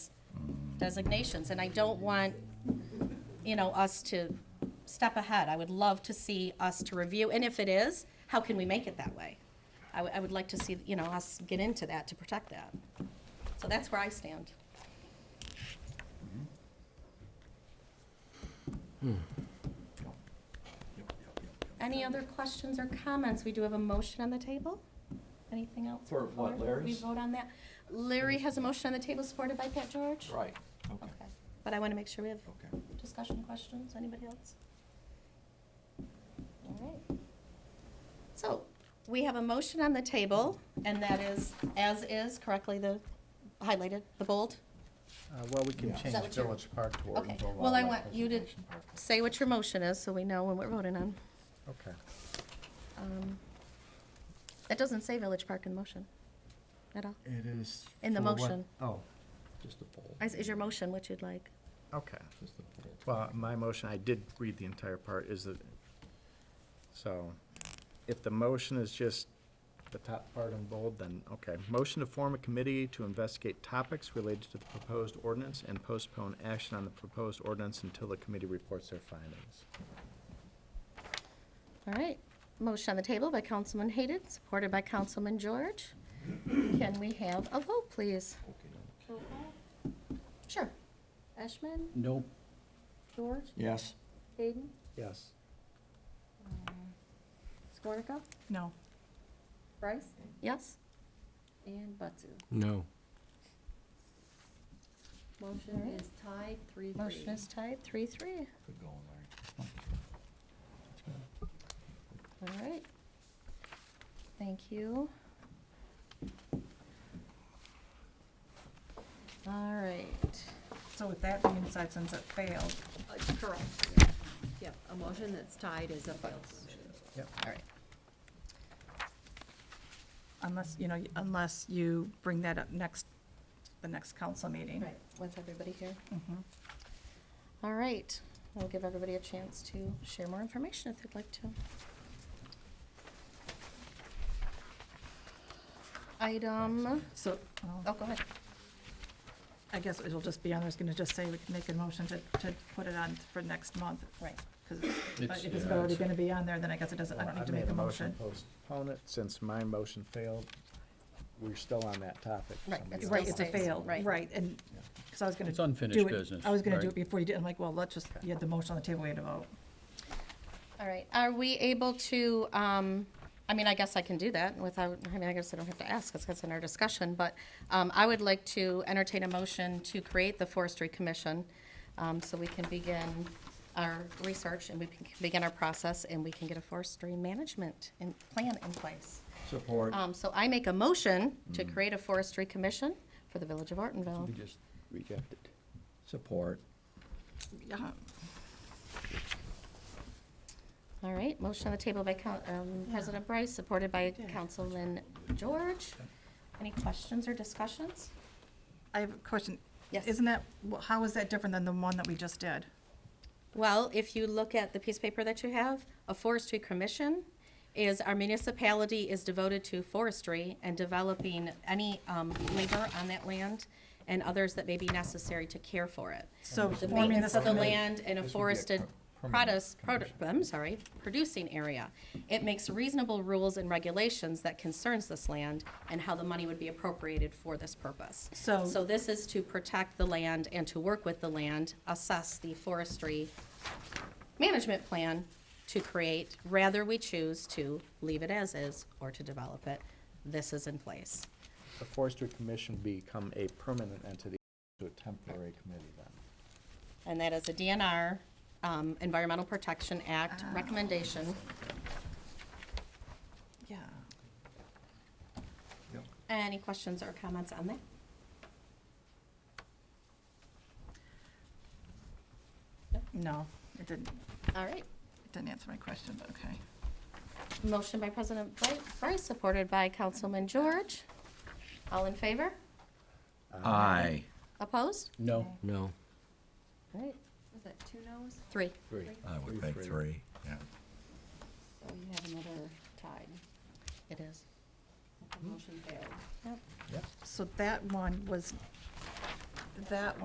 designations, and I don't want, you know, us to step ahead. I would love to see us to review, and if it is, how can we make it that way? I would- I would like to see, you know, us get into that to protect that. So that's where I stand. Any other questions or comments? We do have a motion on the table? Anything else? For what, before We Larry's? vote on that? Larry has a motion on the table supported by Pat George? Right, okay, Okay. But I want to make sure we have okay. discussion questions, anybody else? All right. So, we have a motion on the table, and that is, as is, correctly the, highlighted, the bold? Uh, Well, we can Yeah. that Is change what you're- Village Park to Okay. Ortonville Well, I Wildlife want you to- Preservation Park. Say what your motion is, so we know when we're voting on. Okay. Um, It doesn't say Village Park in the motion, at all. It is. In the for what- motion. Oh, Just a poll. Is, is your motion what you'd like? okay. Just a poll. Well, um, my motion, I did read the entire part, is that, so, if the motion is just the top part in bold, then, okay. Motion to form a committee to investigate topics related to the proposed ordinance and postpone action on the proposed ordinance until the committee reports their findings. All right, motion on the table by Councilman Hayden, supported by Councilman George. Can we have a vote, please? Okay. Sure. Eshman? Nope. George? Yes, Hayden? Yes. Skornica? No. Bryce? Yes. And Butsu. No. Alright. Motion is tied three, three. Motion is tied, three, three. good going, Larry. All right. Thank you. All right. So with that being said, since it failed, Uh, Correct, yeah. Yep, a motion that's tied is a failed motion. Yep. All right. unless, you know, unless you bring that up next, the next council meeting. Right, with everybody here. Mhm. All right. We'll give everybody a chance to share more information if they'd like to. Item, So, well, oh, go ahead. I guess it'll just be, on. I was gonna just say, we can make a motion to, to put it on for next month. Right. 'cause if- It's- but if it's yeah, already it's- gonna be on there, then I guess it doesn't, I don't need to make a motion. Well, I made a motion to postpone it, since my motion failed, we're still on that topic. for Right, some it's reason. Right, it's a Still stays, fail, right. right, and, because I was gonna. It's unfinished do it- business, I was gonna do right? it before you did, I'm like, well, let's just, you had the motion on the table, we had to vote. All right, are we able to, um, I mean, I guess I can do that without, I mean, I guess I don't have to ask, because it's in our discussion, but, um, I would like to entertain a motion to create the forestry commission, um, so we can begin our research and we can begin our process and we can get a forestry management and plan in place. Support. Um, so I make a motion to create a forestry commission for the village of Ortonville. We just rejected. Support. Yeah. All right, motion on the table by Coun- um, President Bryce, supported by Councilman George. Any questions or discussions? I have a question. Yes. Isn't that, wh- how is that different than the one that we just did? Well, if you look at the piece of paper that you have, a forestry commission is, our municipality is devoted to forestry and developing any um, labor on that land and others that may be necessary to care for it. So The forming maintenance this of the committee- land in a This would be a forested per- produce, permanent produ- I'm sorry, producing area. It makes reasonable rules and regulations that concerns this land and how the money would be appropriated for this purpose. So- So this is to protect the land and to work with the land, assess the forestry management plan to create, rather we choose to leave it as is or to develop it. This is in place. The forestry commission become a permanent entity to a temporary committee then. And that is a DNR, um, Environmental Protection Act recommendation. Yeah. Yep. Any questions or comments on that? No, it didn't, All right. it didn't answer my question, but okay. Motion by President Bri- Bryce, supported by Councilman George. All in favor? Aye. Opposed? No. No. All right, Was that two noes? three. I would think three, yeah. So you have another tied. It is. The motion failed. Yep. So that one was, that